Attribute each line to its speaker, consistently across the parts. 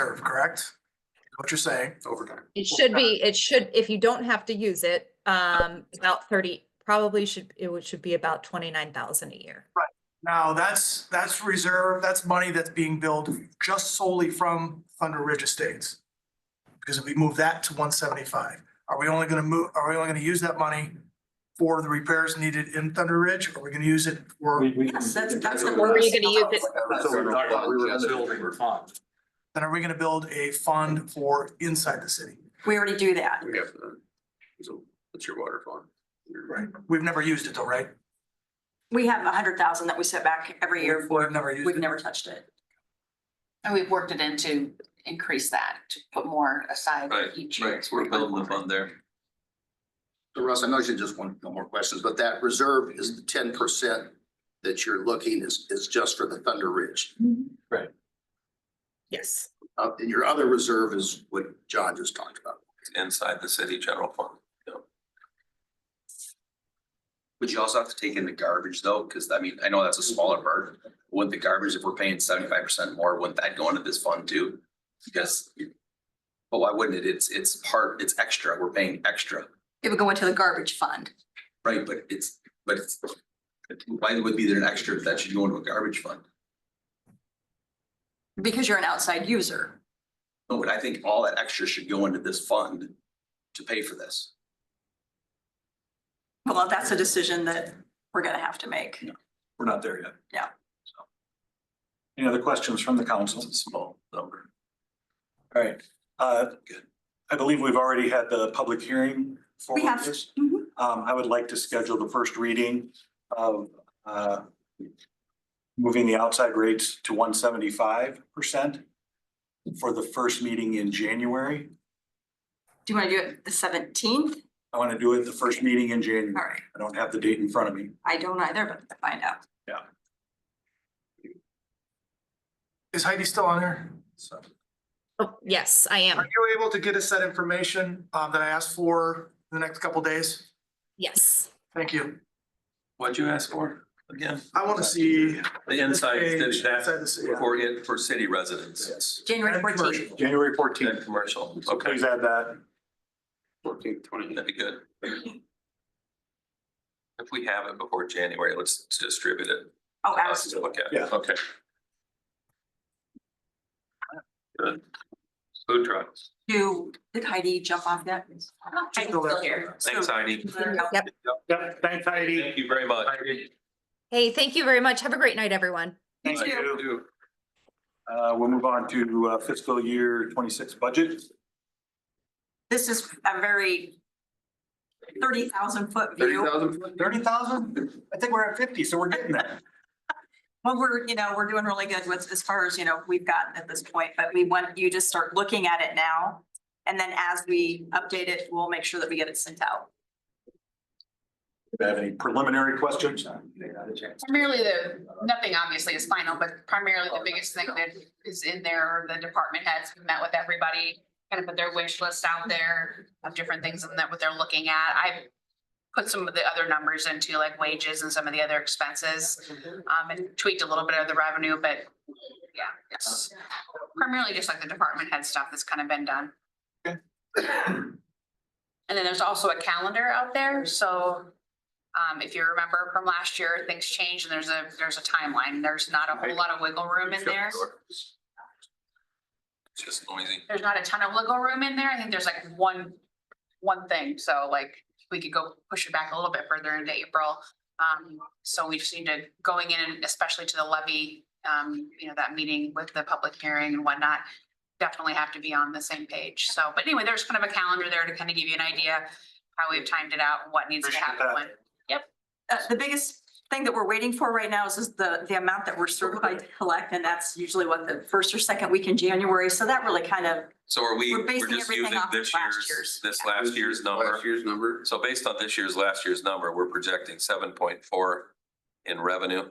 Speaker 1: reserve, correct? What you're saying? Overtime.
Speaker 2: It should be, it should, if you don't have to use it, um, about thirty, probably should, it would, should be about twenty-nine thousand a year.
Speaker 1: Now, that's, that's reserve, that's money that's being billed just solely from Thunder Ridge Estates. Because if we move that to one seventy-five, are we only gonna move, are we only gonna use that money for the repairs needed in Thunder Ridge? Are we gonna use it for,
Speaker 3: Yes, that's, that's.
Speaker 2: Where are you gonna use it?
Speaker 3: That's what we're talking about, we were gonna build a fund.
Speaker 1: then are we gonna build a fund for inside the city?
Speaker 3: We already do that.
Speaker 4: We have the, so that's your water fund.
Speaker 1: Right. We've never used it though, right?
Speaker 3: We have a hundred thousand that we set back every year.
Speaker 1: We've never used
Speaker 3: We've
Speaker 1: it.
Speaker 3: never touched it.
Speaker 5: And we've worked it in to increase that, to put more aside
Speaker 6: Right,
Speaker 5: each year.
Speaker 6: right, we're building the fund there.
Speaker 4: So Russ, I know you just want no more questions, but that reserve is the ten percent that you're looking is, is just for the Thunder Ridge.
Speaker 2: Yes.
Speaker 4: Uh, and your other reserve is what John just talked about.
Speaker 6: It's inside the city general fund. Would you also have to take in the garbage though? Cause I mean, I know that's a smaller part. Wouldn't the garbage, if we're paying seventy-five percent more, wouldn't that go into this fund too? Because. But why wouldn't it? It's, it's part, it's extra. We're paying extra,
Speaker 3: It would go into the garbage fund.
Speaker 6: right? But it's, but it's. Why would be there an extra that should go into a garbage fund?
Speaker 3: Because you're an outside user.
Speaker 6: No, but I think all that extra should go into this fund to pay for this.
Speaker 3: Well, that's a decision that we're gonna have to make.
Speaker 7: We're not there yet.
Speaker 3: Yeah.
Speaker 7: So. Any other questions from the council?
Speaker 6: It's a small number.
Speaker 7: All right, uh,
Speaker 6: Good.
Speaker 7: I believe we've already had the public hearing for
Speaker 3: We have,
Speaker 7: this.
Speaker 3: Mhm.
Speaker 7: Um, I would like to schedule the first reading of, uh, moving the outside rates to one seventy-five percent for the first meeting in January.
Speaker 3: do you wanna do it the seventeenth?
Speaker 7: I want to do it the first meeting in
Speaker 3: All
Speaker 7: January.
Speaker 3: right,
Speaker 7: I don't have the date in front of me.
Speaker 3: I don't either, but I'll find out.
Speaker 1: Is Heidi still on there? So.
Speaker 2: Oh, yes, I am.
Speaker 1: Are you able to get us that information, um, that I asked for in the next couple days?
Speaker 2: Yes.
Speaker 1: Thank you.
Speaker 6: What'd you ask for again?
Speaker 1: I want to see.
Speaker 6: The inside,
Speaker 1: This
Speaker 6: city,
Speaker 1: page,
Speaker 6: that's
Speaker 1: inside the city.
Speaker 6: for it, for city residents
Speaker 3: January
Speaker 1: And
Speaker 3: fourteenth.
Speaker 1: commercial.
Speaker 7: January
Speaker 6: and
Speaker 7: fourteenth.
Speaker 6: commercial.
Speaker 7: So
Speaker 6: Okay,
Speaker 7: please add that.
Speaker 4: Fourteen, twenty.
Speaker 6: that'd be good. If we have it before January, let's distribute it.
Speaker 3: Oh,
Speaker 6: Us to
Speaker 3: absolutely.
Speaker 6: look at.
Speaker 7: Yeah.
Speaker 6: Okay. Good. Food trucks.
Speaker 3: Do, did Heidi jump off that?
Speaker 1: She's still there.
Speaker 6: Thanks, Heidi.
Speaker 2: Yep.
Speaker 7: Yep, thanks Heidi.
Speaker 6: Thank you very much.
Speaker 2: Hey, thank you very much. Have a great night, everyone.
Speaker 7: Thank you.
Speaker 6: Do.
Speaker 7: Uh, we'll move on to uh, fiscal year twenty-six budget.
Speaker 3: This is a very thirty thousand foot
Speaker 4: Thirty
Speaker 3: view.
Speaker 4: thousand?
Speaker 7: Thirty thousand? I think we're at fifty, so we're getting there.
Speaker 3: Well, we're, you know, we're doing really good with, as far as, you know, we've gotten at this point, but we want you to start looking at it now. And then as we update it, we'll make sure that we get it sent out.
Speaker 7: Do you have any preliminary questions?
Speaker 5: Primarily the, nothing obviously is final, but primarily the biggest thing that is in there, the department heads have met with everybody. Kind of put their wish list out there of different things and that what they're looking at. I've put some of the other numbers into like wages and some of the other expenses. Um, and tweaked a little bit of the revenue, but yeah, it's primarily just like the department head stuff that's kind of been done. And then there's also a calendar out there, so um, if you remember from last year, things change and there's a, there's a timeline. There's not a whole lot of wiggle room in there.
Speaker 6: Just noisy.
Speaker 5: There's not a ton of wiggle room in there. I think there's like one, one thing. So like, we could go push it back a little bit further into April. Um, so we just need to, going in, and especially to the levy, um, you know, that meeting with the public hearing and whatnot, definitely have to be on the same page. So, but anyway, there's kind of a calendar there to kind of give you an idea how we've timed it out and what needs to
Speaker 7: Appreciate
Speaker 5: happen
Speaker 7: that.
Speaker 5: when.
Speaker 3: Uh, the biggest thing that we're waiting for right now is just the, the amount that we're certified to collect, and that's usually what the first or second week in January, so that really kind of,
Speaker 6: So are we,
Speaker 3: We're
Speaker 6: we're
Speaker 3: basing
Speaker 6: just
Speaker 3: everything
Speaker 6: using
Speaker 3: off of
Speaker 6: this
Speaker 3: last
Speaker 6: year's,
Speaker 3: year's.
Speaker 6: this last year's number?
Speaker 4: Last year's number.
Speaker 6: So based on this year's, last year's number, we're projecting seven point four in revenue.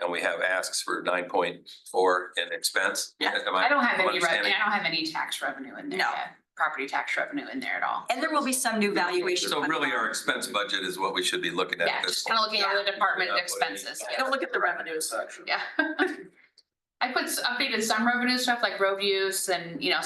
Speaker 6: And we have asks for nine point four in expense.
Speaker 3: Yeah.
Speaker 6: Am
Speaker 5: I don't have any revenue,
Speaker 6: understanding?
Speaker 5: I don't have any tax revenue in there
Speaker 3: No.
Speaker 5: yet, property tax revenue in there at all.
Speaker 3: and there will be some new valuation.
Speaker 6: So really our
Speaker 3: are.
Speaker 6: expense budget is what we should be looking at
Speaker 5: Yeah,
Speaker 6: at this
Speaker 5: just
Speaker 6: point.
Speaker 5: kind of looking at the department
Speaker 6: Yeah.
Speaker 5: expenses, yeah.
Speaker 3: Don't look at the revenues.
Speaker 5: yeah. I put s- updated some revenue stuff like road use and, you know,